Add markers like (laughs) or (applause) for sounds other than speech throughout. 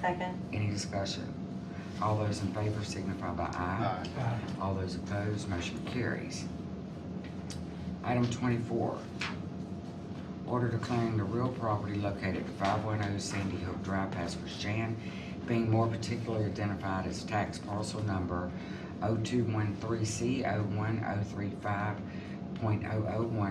Second. Any discussion? All those in favor signify by Aye. aye. All those opposed, motion carries. Item twenty-four, order declaring the real property located at five one oh Sandy Hook Drive, Pasco Shan, being more particularly identified as tax parcel number oh 213 C 135.001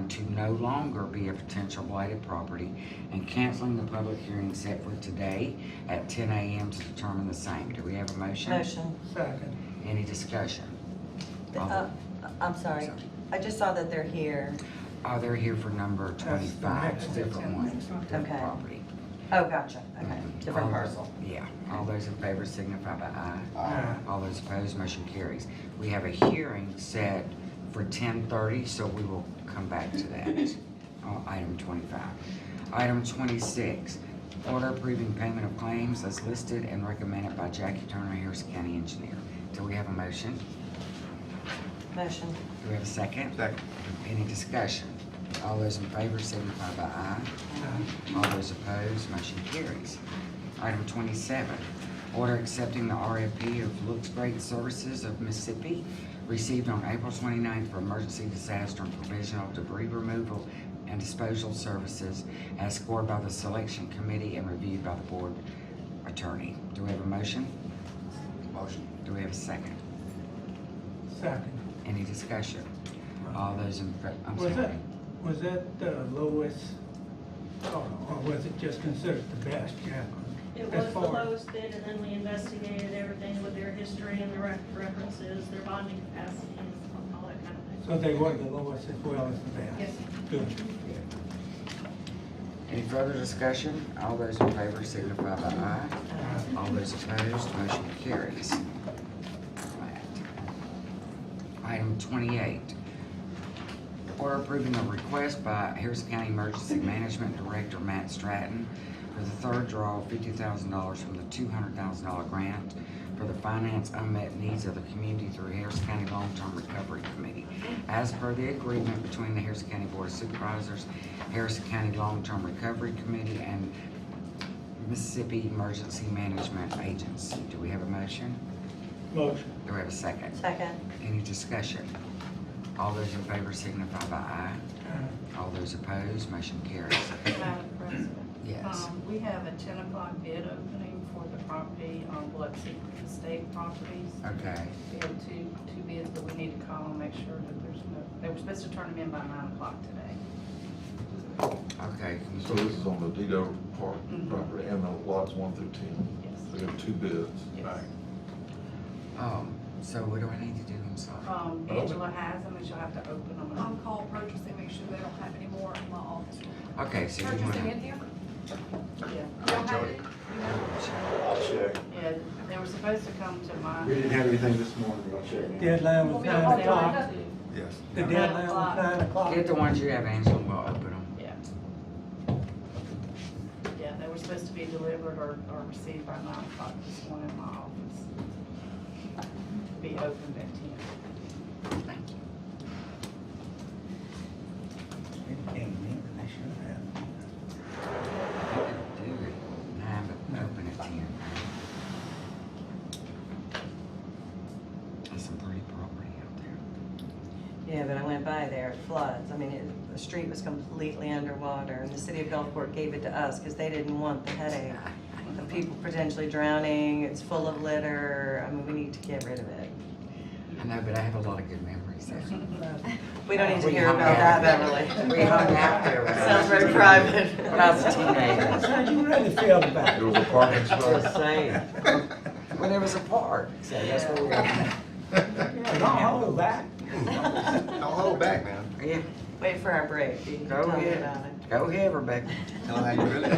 to no longer be a potential blighted property and canceling the public hearing set for today at ten AM to determine the same. Do we have a motion? Motion. Second. Any discussion? All Uh, I'm sorry. Sorry. I just saw that they're here. Oh, they're here for number That's the next twenty-five, different one. one, different Okay. property. Oh, gotcha. Okay. Different All- parcel. Yeah, all those in favor signify by aye. Ah, Aye. All those opposed, motion carries. We have a hearing set for ten thirty, so we will come back to that (laughs) on item twenty-five. Item twenty-six, order approving payment of claims as listed and recommended by Jackie Turner, Harrison County Engineer. Do we have a motion? Motion. Do we have a second? Second. Any discussion? All those in favor signify by aye. All those opposed, motion carries. Item twenty-seven, order accepting the RFP of Looks Great Services of Mississippi, received on April 29th for emergency disaster and provisional debris removal and disposal services as scored by the selection committee and reviewed by the board attorney. Do we have a motion? Motion. Do we have a second? Second. Any discussion? All those in, fa- I'm Was that, sorry. was that the lowest, or or was it just considered the best, Jack? It As was the far- lowest bid, and then we investigated everything with their history and their ref- references, their bonding capacity, and all that kind of thing. So they were the lowest as well as the best? Yes. Good. Any further discussion? All those in favor signify by aye. All those opposed, motion carries. Item twenty-eight. Order approving a request by Harrison County Emergency Management Director Matt Stratton for the third draw of fifty thousand dollars from the two hundred thousand dollar grant for the finance unmet needs of the community through Harrison County Long-Term Recovery Committee. As per the agreement between the Harrison County Board of Supervisors, Harrison County Long-Term Recovery Committee, and Mississippi Emergency Management Agency. Do we have a motion? Motion. Do we have a second? Second. Any discussion? All those in favor signify by aye. All those opposed, motion carries. Madam President. Yes. Um, We have a ten o'clock bid opening for the property on Biloxi Estate Properties. Okay, We have two, two bids, but we need to call and make sure that there's no, they were supposed to turn them in by nine o'clock today. okay. So this is on the Dido Park Mhm. property and the lots one through ten. Yes. We have two bids. Yes. Oh, so what do I need to do? I'm sorry. Um, Angela has them, and she'll have to open them up. on-call purchasing, make sure they don't have any more in my office. Okay, so you Purchasing in wanna. here? Oh. Yeah. You don't have any? I'll check. Yeah, they were supposed to come to my. We didn't have anything this morning, but I'll check. now. Deadline was They nine o'clock. were to- Yes. The Nine deadline was o'clock. nine o'clock. Get the ones you have, Angela, we'll open them. Yeah. Yeah, they were supposed to be delivered or, or received by nine o'clock this morning in my office. Be opened at ten. Thank you. I could do it at nine, but open at ten. That's some pretty property out there. Yeah, but I went by there, it floods. I mean, it- the street was completely underwater, and the city of Gulfport gave it to us because they didn't want the headache of people potentially drowning. It's full of litter. I mean, we need to get rid of it. I know, but I have a lot of good memories there. We don't need to We hear hung about out. that, Beverly. We hung out there. when I Sounds was very a private. teenager. When I was a teenager. How you really feel about It it? was a parking Just spot. saying. When there was a park, so that's where we were. (laughs) Don't hold back. I'll hold back now. Yeah, (laughs) Wait for our break. You can Go tell me ahead. about it. go ahead, Rebecca. Tell her how you really,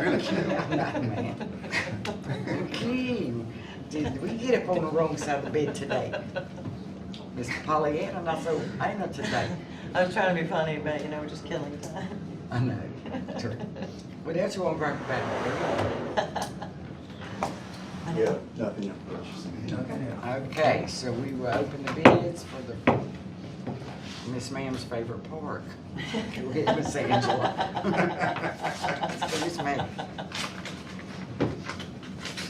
really feel. Keen, did we get up on the wrong side of the bed (laughs) today? Miss Pollyanna, not so, ain't not today. I was trying to be funny, but you know, we're just killing time. I know. (laughs) True. Well, that's what I'm bringing back. Yeah, nothing in purchasing. Nothing else. Okay, so we will open the bids for the Miss Ma'am's favorite (laughs) (laughs) park. We'll get Miss Angela. Excuse me.